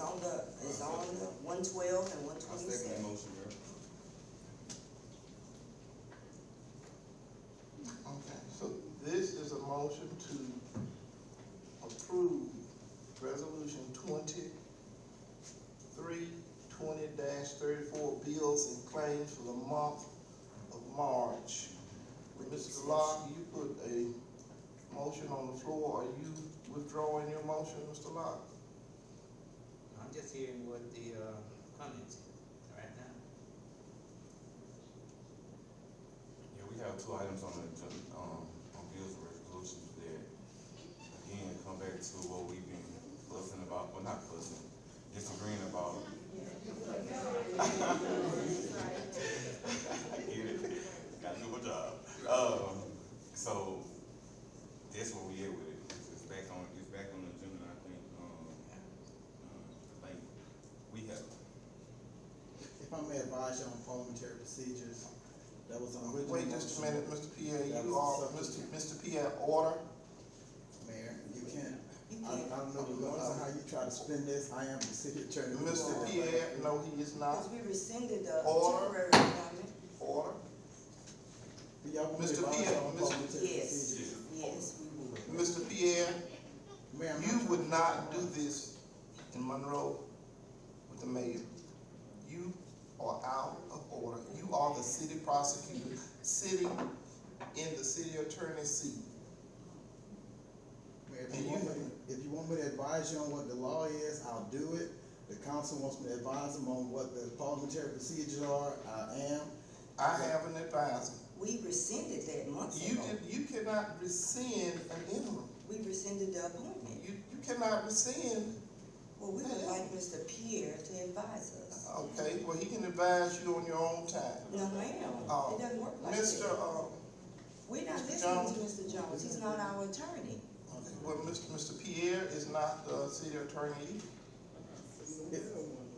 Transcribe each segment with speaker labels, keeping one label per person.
Speaker 1: on the, it's on the one twelve and one
Speaker 2: I second the
Speaker 1: twenty-seven.
Speaker 2: motion, Mayor.
Speaker 3: Okay, so this is a motion to approve resolution twenty-three, twenty thirty-four bills and claims for the month of March. Mr. Locke, you put a motion on the floor, are you withdrawing your motion, Mr. Locke?
Speaker 4: I'm just hearing what the, uh, comments is right now.
Speaker 2: Yeah, we have two items on the, agen- um, on bills and resolutions that, again, come back to what we've been fussing about, well, not fussing, disagreeing about. I get it, gotta do my job. Um, so, that's where we at with it, it's, it's back on, it's back on the agenda, I think, um, um, I think we have,
Speaker 5: If I may advise you on parliamentary procedures, that was on original.
Speaker 3: Wait just a
Speaker 5: motion.
Speaker 3: minute, Mr. Pierre,
Speaker 5: That
Speaker 3: you are, Mr.
Speaker 5: was something-
Speaker 3: Mr. Pierre, order,
Speaker 5: Mayor, you can't, I, I don't know the laws on how you try to spin this, I am the city attorney.
Speaker 3: Mr. Pierre, no, he is not,
Speaker 1: Cause we rescinded the temporary
Speaker 3: Order.
Speaker 1: appointment,
Speaker 3: order.
Speaker 5: Do y'all want me to
Speaker 3: Mr.
Speaker 5: advise
Speaker 3: Pierre,
Speaker 5: you on
Speaker 3: Mr.
Speaker 5: parliamentary
Speaker 1: Yes.
Speaker 5: procedures?
Speaker 1: yes, we would.
Speaker 3: Mr. Pierre,
Speaker 5: Mayor, I'm
Speaker 3: you
Speaker 5: not-
Speaker 3: would not do this in Monroe with the mayor. You are out of order. You are the city prosecutor, sitting in the city attorney's seat.
Speaker 5: Mayor, if you want me, if you want me to advise you on what the law is, I'll do it. The council wants me to advise them on what the parliamentary procedures are, I am.
Speaker 3: I have an advisor.
Speaker 1: We rescinded that months
Speaker 3: You
Speaker 1: ago.
Speaker 3: did, you cannot rescind an interim.
Speaker 1: We rescinded the appointment.
Speaker 3: You, you cannot rescind,
Speaker 1: Well, we would like Mr. Pierre to advise us.
Speaker 3: okay, well, he can advise you on your own time.
Speaker 1: No, ma'am,
Speaker 3: Oh,
Speaker 1: it doesn't work like
Speaker 3: Mr.
Speaker 1: that.
Speaker 3: Uh,
Speaker 1: We're not
Speaker 3: Mr.
Speaker 1: listening to Mr. Jones, he's not our attorney.
Speaker 3: okay, well, Mr. Mr. Pierre is not the city attorney either.
Speaker 5: If,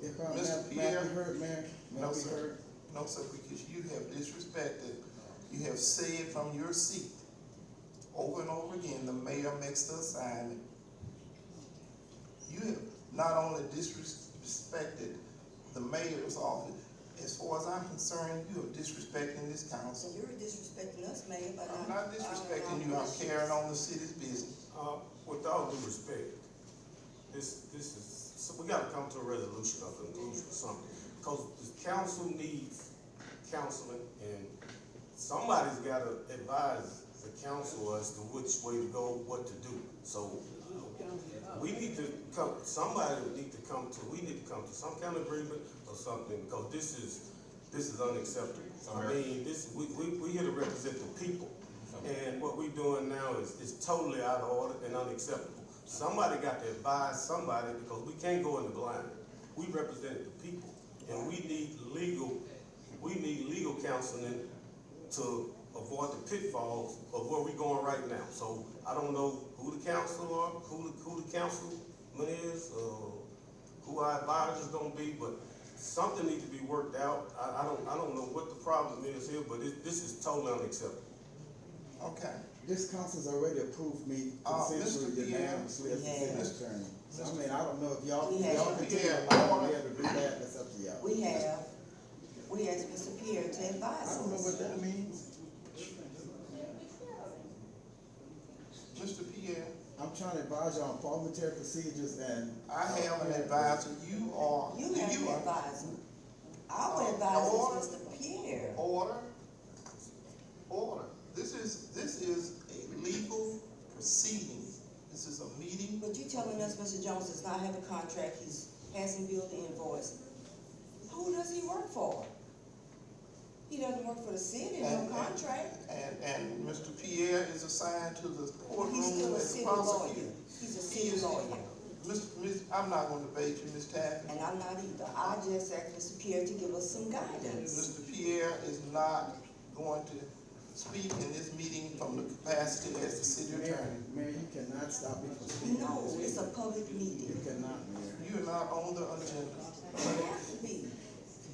Speaker 5: if I,
Speaker 3: Mr.
Speaker 5: may- may I
Speaker 3: Pierre?
Speaker 5: be heard, Mayor? May I
Speaker 3: No,
Speaker 5: be
Speaker 3: sir.
Speaker 5: heard?
Speaker 3: No, sir, because you have disrespected, you have said from your seat over and over again, the mayor makes the assignment. You have not only disrespected the mayor's office, as far as I'm concerned, you are disrespecting this
Speaker 1: So
Speaker 3: council.
Speaker 1: you're disrespecting us, Mayor, but I'm.
Speaker 3: I'm not disrespecting you, I'm carrying on the city's business.
Speaker 6: Uh, with all due respect, this, this is, so we gotta come to a resolution or conclusion or something. Cause the council needs counseling and somebody's gotta advise the council as to which way to go, what to do. So, we need to come, somebody would need to come to, we need to come to some kind of agreement or something, cause this is, this is unacceptable. I mean, this, we, we, we here to represent the people. And what we doing now is, is totally out of order and unacceptable. Somebody got to advise somebody because we can't go in the blind. We represent the people and we need legal, we need legal counseling to avoid the pitfalls of where we going right now. So I don't know who the council are, who the, who the councilman is, or who our advisors gonna be, but something needs to be worked out. I, I don't, I don't know what the problem is here, but it, this is totally unacceptable.
Speaker 3: Okay,
Speaker 5: This council's already approved me
Speaker 3: Uh, Mr.
Speaker 5: consensually
Speaker 3: Pierre.
Speaker 5: unanimously as the
Speaker 1: Yeah.
Speaker 5: city attorney. So, I mean, I don't know if y'all,
Speaker 1: We
Speaker 5: if y'all
Speaker 1: have-
Speaker 5: continue to
Speaker 3: Yeah.
Speaker 5: allow me to do that, that's up to y'all.
Speaker 1: We have, we asked Mr. Pierre to advise
Speaker 5: I don't know
Speaker 1: us.
Speaker 5: what that means.
Speaker 3: Mr. Pierre,
Speaker 5: I'm trying to advise y'all on parliamentary procedures and.
Speaker 3: I have an advisor, you are,
Speaker 1: You Oh, have
Speaker 3: you
Speaker 1: to
Speaker 3: are,
Speaker 1: advise him. Our
Speaker 3: Uh,
Speaker 1: advisor
Speaker 3: order.
Speaker 1: is Mr. Pierre.
Speaker 3: Order, order. This is, this is a legal proceeding. This is a meeting.
Speaker 1: But you telling us Mr. Jones does not have a contract, he's, hasn't billed the invoice. Who does he work for? He doesn't work for the city, no
Speaker 3: And-
Speaker 1: contract.
Speaker 3: And, and Mr. Pierre is assigned to the
Speaker 1: He's
Speaker 3: courtroom
Speaker 1: still a
Speaker 3: as
Speaker 1: city
Speaker 3: the
Speaker 1: lawyer.
Speaker 3: prosecutor.
Speaker 1: He's a
Speaker 3: He
Speaker 1: city
Speaker 3: is-
Speaker 1: lawyer,
Speaker 3: Miss, miss, I'm not gonna debate you, Ms. Taffy.
Speaker 1: and I'm not either. I just asked Mr. Pierre to give us some guidance.
Speaker 3: Mr. Pierre is not going to speak in this meeting from the capacity as the city
Speaker 5: Mayor,
Speaker 3: attorney.
Speaker 5: Mayor, you cannot stop me from speaking.
Speaker 1: No, it's a public meeting.
Speaker 5: You cannot, Mayor.
Speaker 3: You are not on the agenda.
Speaker 1: It has to be.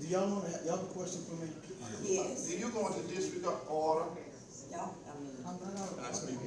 Speaker 5: Do y'all wanna, have- y'all have a question for me?
Speaker 1: Yes,
Speaker 3: You're going to disregard order.
Speaker 1: no, I mean,
Speaker 5: I'm not.
Speaker 2: Can I speak?